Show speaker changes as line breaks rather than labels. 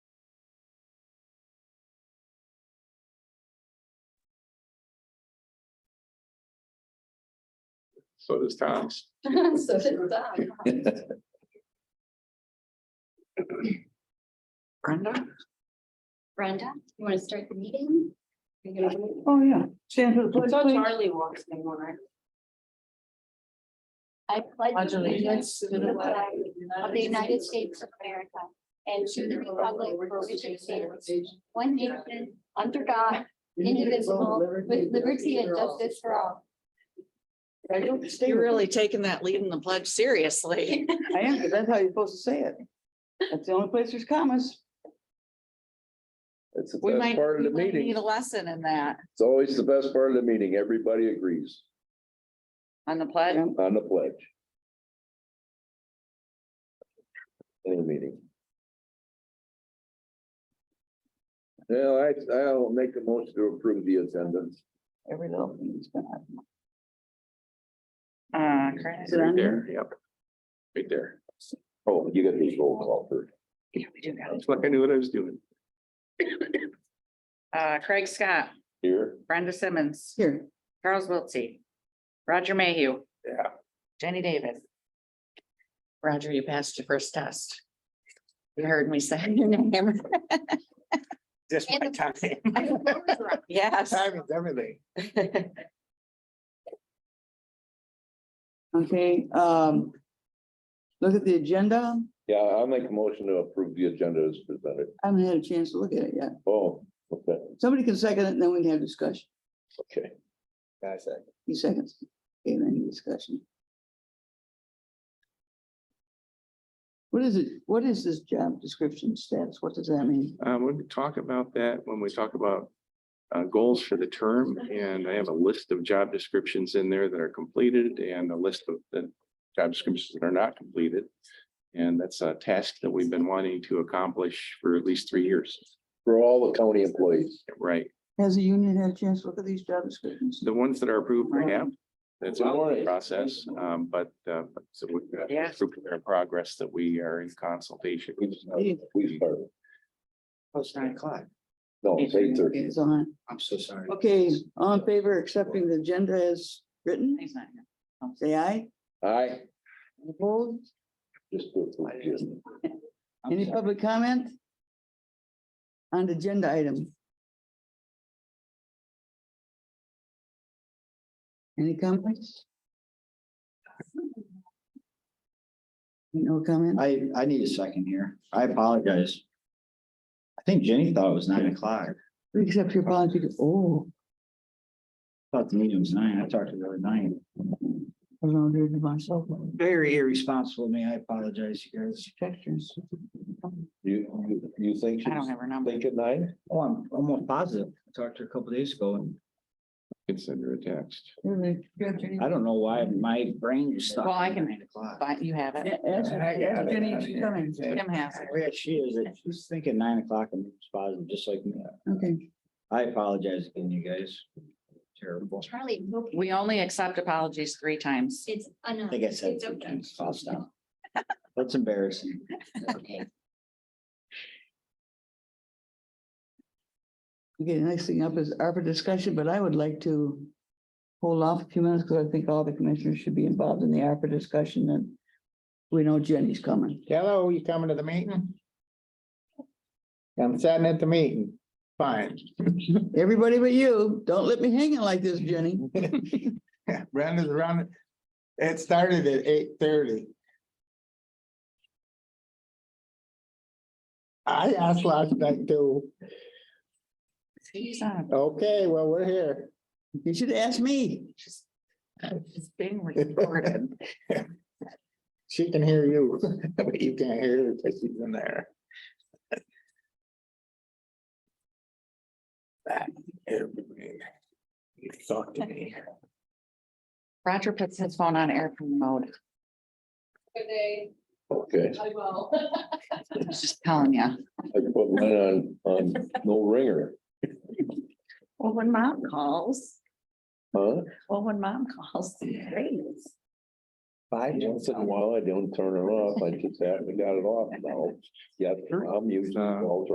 so does Tom's.
So did Doc.
Brenda?
Brenda, you want to start the meeting? You're gonna do
Oh, yeah. Stand for the
I
pledge,
thought
please.
Charlie walks in one, right?
it? I pledge
Pledge
allegiance
allegiance
to the flag of the United States of America and to the republic for which it stands, one nation, under God, indivisible, with liberty and justice for all.
You're
You're really
taking that lead in the pledge seriously. I am, 'cause that's how you're supposed to say it. That's the only place there's commas.
It's the
We
best
might,
part of
we
the
might
meeting.
need a lesson in that
It's always the best part of the meeting. Everybody agrees
on the pledge.
on the pledge. In the meeting. Well, I, I'll make a motion to approve the attendance.
Every little thing's been. Uh, correct. Is it
Right
on
there,
there?
yep. Right there.
Oh, you got this roll call first.
Yeah, we do got it.
It's like I knew what I was doing.
Uh, Craig Scott,
Here,
Brenda Simmons,
Here.
Charles Wiltie, Roger Mayhew.
Yeah.
Jenny David. Roger, you passed your first test. You heard me say your name.
Just my
And
time,
Yes.
time is everything.
Okay, um. Look at the agenda.
yeah, I'll make a motion to approve the agenda as presented.
I haven't had a chance to look at it yet.
Oh, okay,
Somebody can second it and then we can have discussion.
okay.
That's it.
Few seconds. Okay, then any discussion. What is it? What is this job description status? What does that mean?
Um, we talk about that when we talk about uh, goals for the term, and I have a list of job descriptions in there that are completed and a list of the job descriptions that are not completed. And that's a task that we've been wanting to accomplish for at least three years,
For all the county employees,
right?
Has the union had a chance to look at these job descriptions?
The ones that are approved, we have. That's a
Alright.
process, um, but, uh, but so we've got
Yes.
group in progress that we are in consultation.
we just, we started.
Post nine o'clock.
No, it's eight
Okay,
thirty.
It's on.
I'm so sorry.
Okay, all in favor of accepting the agenda as written,
He's not here.
say aye.
Aye.
Opposed?
Just to approve the agenda.
I'm
Any
sorry.
public comment? On the agenda item? Any comments? No comment?
I, I need a second here. I apologize. I think Jenny thought it was nine o'clock.
Except your policy, oh,
Thought the meeting was nine. I talked to her at nine.
I was on there to myself.
Very irresponsible of me. I apologize, you guys.
Textures.
You, you- you think?
I don't
she's
have her number.
Think at nine?
Oh, I'm almost positive. I talked to her a couple days ago and
Consider a text.
I don't know why my brain just stopped.
Well, I can-
Nine o'clock.
But you have it.
Yeah, ask- ask Jenny if she's coming.
Tim has it.
Yeah, she is. She's thinking nine o'clock and it's positive, just like me.
Okay,
I apologize again, you guys. Terrible.
Charlie,
We only accept apologies three times.
it's
I
enough.
think I said
It's
two
okay.
times. I'll stop. That's embarrassing.
Okay.
okay, the next thing up is ARPA discussion, but I would like to hold off a few minutes because I think all the commissioners should be involved in the ARPA discussion and we know Jenny's coming.
Hello, you coming to the meeting? I'm sitting at the meeting. Fine.
Everybody but you, don't let me hanging like this, Jenny.
Brenda's around. It started at eight thirty. I asked last night too.
He's uh, on.
Okay, well, we're here.
You should ask me.
It's it's being recorded.
She can hear you, but you can't hear her because she's in there. That, everybody. You talk to me.
Roger puts his phone on airplane mode.
Okay,
I will.
I was just telling you.
I put mine on, on no ringer,
Well, when mom calls,
huh?
well, when mom calls, it rings.
Five.
Once in a while, I don't turn it off, I just haven't got it off now. Yeah, I'm using.
Uh,
all the